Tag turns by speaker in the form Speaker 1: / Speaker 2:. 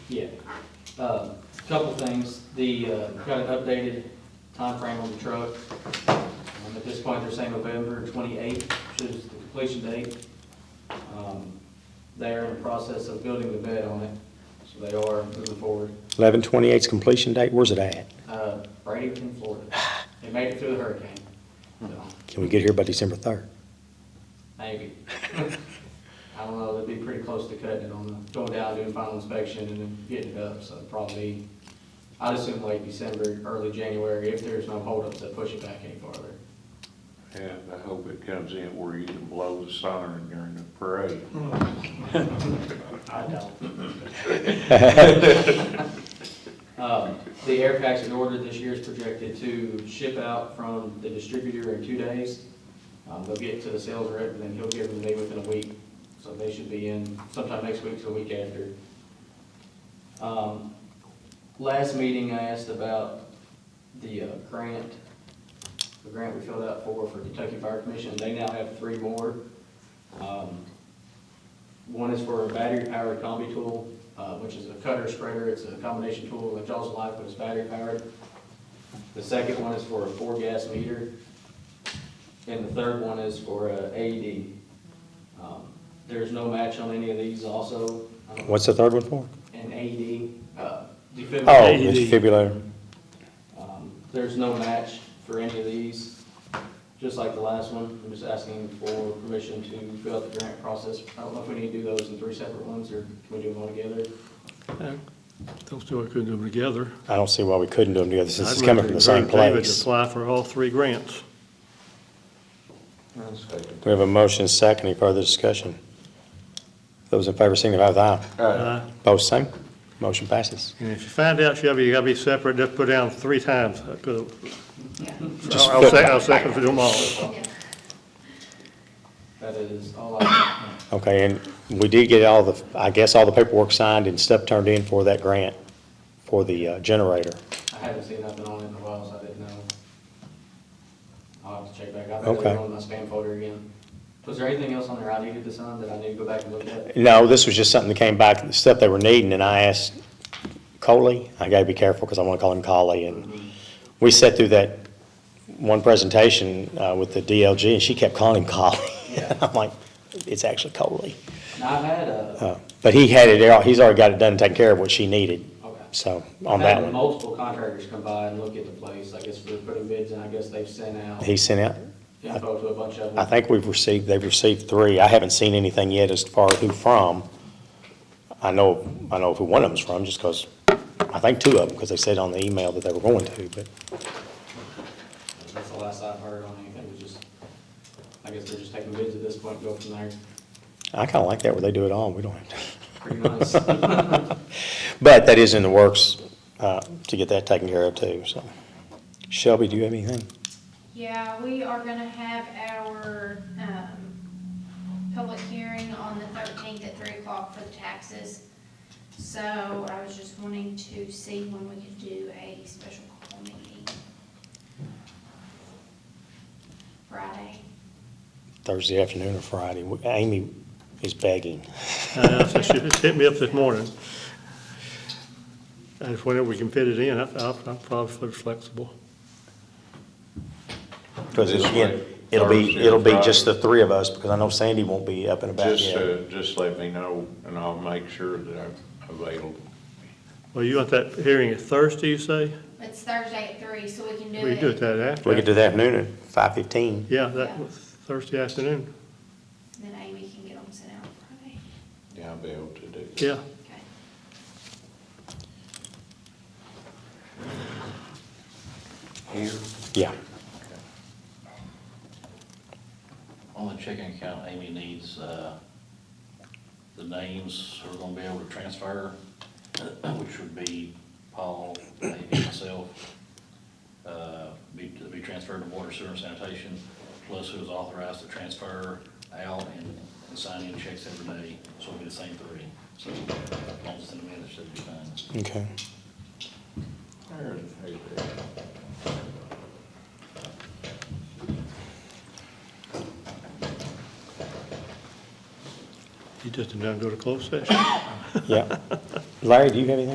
Speaker 1: Yeah. Um, Couple things, the, uh, got an updated timeframe on the truck. Um, At this point, they're saying November twenty-eighth, which is the completion date. Um, They're in the process of building the bed on it, so they are moving forward.
Speaker 2: 11/28's completion date, where's it at?
Speaker 1: Uh, Bradenton, Florida. They made it through the hurricane, so
Speaker 2: Can we get here by December 3rd?
Speaker 1: maybe. I don't know, they'd be pretty close to cutting it on the, going down, doing final inspection and then getting it up, so probably, I'd assume late December, early January, if there's no holdups that push it back any farther.
Speaker 3: Yeah, I hope it comes in where you can blow the siren during the parade.
Speaker 1: I don't. Um, The air packs in order this year is projected to ship out from the distributor in two days. Um, They'll get to the sales rep, and then he'll give them to me within a week. So they should be in sometime next week to the week after. Um, Last meeting, I asked about the uh, grant, the grant we filled out for, for Kentucky Fire Commission. They now have three more. Um, one is for a battery-powered combi tool, uh, which is a cutter spreader, it's a combination tool that draws life, but it's battery-powered. The second one is for a four-gas meter, and the third one is for a AED. Um, There's no match on any of these also. Um,
Speaker 2: What's the third one for?
Speaker 1: An AED, uh,
Speaker 2: Oh,
Speaker 1: defibrillator.
Speaker 2: it's defibrillator.
Speaker 1: Um, There's no match for any of these, just like the last one. I'm just asking for permission to fill out the grant process. I don't know if we need to do those in three separate ones, or can we do them all together?
Speaker 4: Yeah, Don't see why we couldn't do them together.
Speaker 2: I don't see why we couldn't do them together since it's
Speaker 4: I'd
Speaker 2: coming from the same
Speaker 4: encourage David to
Speaker 2: place.
Speaker 4: apply for all three grants.
Speaker 2: We have a motion, second, any further discussion? Those in favor signify with aye.
Speaker 4: Uh,
Speaker 2: Opposed, same. Motion passes.
Speaker 4: And if you find out, Shelby, you gotta be separate, just put down three times. I could-
Speaker 2: Just
Speaker 4: I'll I'll
Speaker 2: put-
Speaker 4: sec- I'll second for them all.
Speaker 1: That is all I,
Speaker 2: Okay, and we did get all the, I guess, all the paperwork signed and stuff turned in for that grant, for the uh, generator.
Speaker 1: I haven't seen nothing on it in a while, so I didn't know. I'll have to check back. I think
Speaker 2: Okay.
Speaker 1: they're on my spam folder again. Was there anything else on there I needed to sign that I need to go back and look at?
Speaker 2: No, this was just something that came back, the stuff they were needing, and I asked Coley, I gotta be careful, because I want to call him Coley, and we sat through that one presentation uh, with the DLG, and she kept calling him Coley.
Speaker 1: Yeah.
Speaker 2: I'm like, it's actually Coley.
Speaker 1: Now, I've had, uh,
Speaker 2: Uh, But he had it, all- he's already got it done, and taken care of what she needed,
Speaker 1: okay.
Speaker 2: so,
Speaker 1: I've
Speaker 2: on
Speaker 1: had
Speaker 2: that one.
Speaker 1: Multiple contractors come by and look at the place. I guess they're putting bids, and I guess they've sent out
Speaker 2: He sent out,
Speaker 1: info to a bunch of them.
Speaker 2: I think we've received, they've received three, I haven't seen anything yet as far as who from. I know, I know who one of them's from, just because, I think two of them, because they said on the email that they were going to, but.
Speaker 1: That's the last I've heard on anything, was just, I guess they're just taking bids at this point, go from there,
Speaker 2: I kind of like that where they do it all, and we don't have to.
Speaker 1: pretty nice.
Speaker 2: But that is in the works uh, to get that taken care of too, so. Shelby, do you have anything?
Speaker 5: Yeah, we are gonna have our, um, public hearing on the thirteenth at three o'clock for the taxes. So I was just wanting to see when we could do a special call meeting. Friday.
Speaker 2: Thursday afternoon or Friday? We- Amy is begging.
Speaker 4: Uh, so She just hit me up this morning. And if whenever we can fit it in, I- I'll, I'm probably flexible.
Speaker 2: Because
Speaker 3: This
Speaker 2: again,
Speaker 3: week,
Speaker 2: it'll be,
Speaker 3: Thursday or
Speaker 2: it'll be just the
Speaker 3: Friday.
Speaker 2: three of us, because I know Sandy won't be up and about
Speaker 3: Just,
Speaker 2: yet.
Speaker 3: uh, just let me know and I'll make sure that I'm available.
Speaker 4: Well, you want that hearing at Thursday, you say?
Speaker 5: It's Thursday at three, so we can do it.
Speaker 4: We can do it that after.
Speaker 2: We could do the afternoon at five fifteen.
Speaker 4: Yeah, that was Thursday afternoon.
Speaker 5: Then Amy can get them sent out Friday.
Speaker 3: Yeah, I'll be able to do that.
Speaker 4: Yeah.
Speaker 5: Okay.
Speaker 6: Here,
Speaker 2: Yeah.
Speaker 6: on the checking account, Amy needs, uh, the names we're gonna be able to transfer, which would be Paul, Amy, myself, uh, be, to be transferred to water, sewer, and sanitation, plus who's authorized to transfer out and, and sign in checks every day, so it'll be the same three. So, as long as it's in the minutes, should be fine.
Speaker 2: Okay.
Speaker 3: There it is.
Speaker 4: You just didn't go to closed session.
Speaker 2: Yeah. Larry, do you have anything?